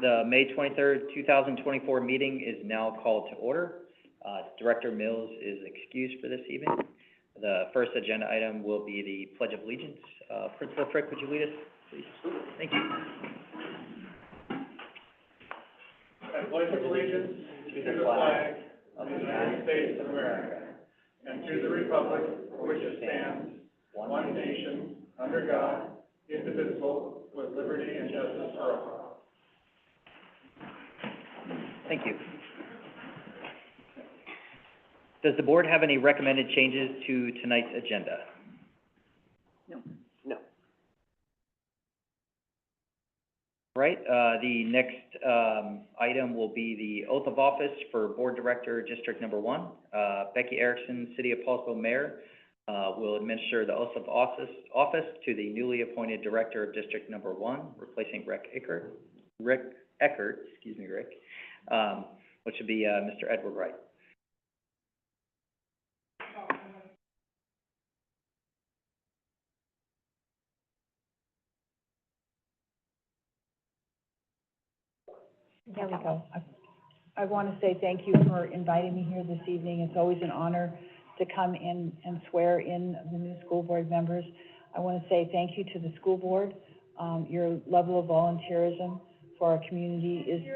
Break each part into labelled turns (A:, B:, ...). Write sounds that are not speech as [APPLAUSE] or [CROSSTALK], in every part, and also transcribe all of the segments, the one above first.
A: The May twenty-third, two thousand twenty-four meeting is now called to order. Uh, Director Mills is excused for this evening. The first agenda item will be the Pledge of Allegiance. Uh, Principal Frick, would you lead us, please? Thank you.
B: I pledge allegiance to the flag of the United States of America and to the republic for which it stands, one nation, under God, indivisible, with liberty and justice for all.
A: Thank you. Does the board have any recommended changes to tonight's agenda?
C: No.
A: Right, uh, the next, um, item will be the oath of office for Board Director, District Number One. Uh, Becky Erickson, City of Paulsville Mayor, uh, will administer the oath of office, office to the newly appointed Director of District Number One, replacing Rick Ickert, Rick Eckert, excuse me, Rick, um, which would be, uh, Mr. Edward Wright.
D: There we go. I- I want to say thank you for inviting me here this evening. It's always an honor to come in and swear in the new school board members. I want to say thank you to the school board. Um, your level of volunteerism for our community is.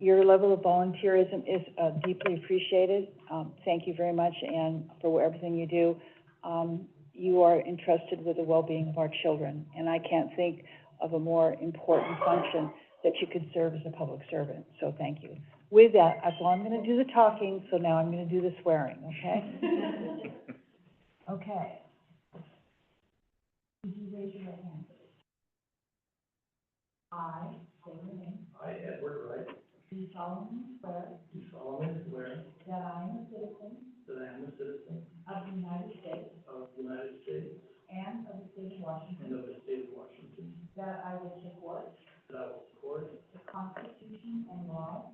D: Your level of volunteerism is uh, deeply appreciated. Um, thank you very much and for everything you do. Um, you are entrusted with the well-being of our children, and I can't think of a more important function that you could serve as a public servant, so thank you. With that, that's all I'm gonna do the talking, so now I'm gonna do the swearing, [LAUGHS] okay? Okay. Would you raise your right hand? I, say your name. I, Edward Wright. Do solemnly swear. Do solemnly swear. That I am a citizen. That I am a citizen. Of the United States. Of the United States. And of the state of Washington. That I will support. That I will support. The Constitution and laws.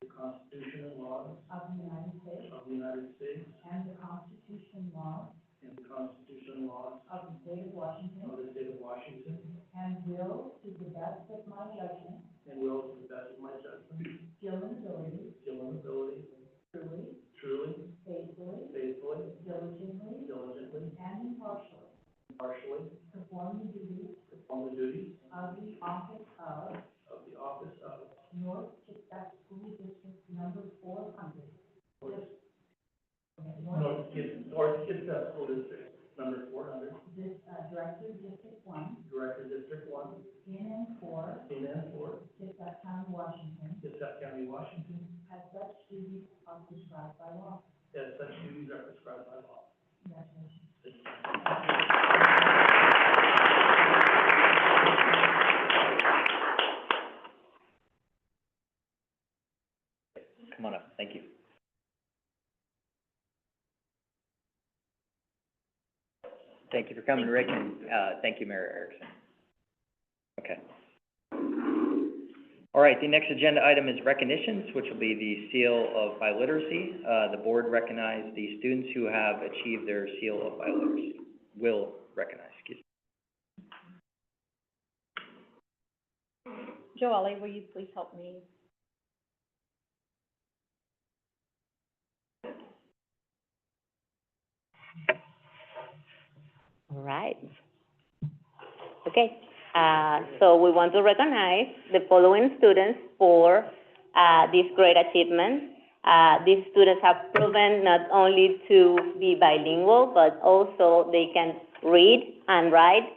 D: The Constitution and laws. Of the United States. Of the United States. And the Constitution and laws. And the Constitution and laws. Of the state of Washington. Of the state of Washington. And will, to the best of my judgment. And will, to the best of my judgment. Skill and ability. Skill and ability. Truly. Truly. Faithfully. Faithfully. Diligently. Diligently. And impartially. Impartially. Perform the duties. Of the office of. Of the office of. North Kitsap School District Number four hundred.
B: North Kitsap, North Kitsap School District, number four hundred,
D: This, uh, Director District One,
B: Director District One,
D: in and for
B: in and for
D: Kitsap County, Washington,
B: Kitsap County, Washington,
D: has such duties are prescribed by law.
B: as such duties are prescribed by law.
D: Congratulations.
A: Come on up, thank you. Thank you for coming, Rick, and, uh, thank you, Mayor Erickson. Okay. All right, the next agenda item is recognitions, which will be the seal of biliteracy. Uh, the board recognized the students who have achieved their seal of biliteracy, will recognize, excuse me.
E: Joelle, will you please help me?
C: All right. Okay, uh, so we want to recognize the following students for, uh, this great achievement. Uh, these students have proven not only to be bilingual, but also they can read and write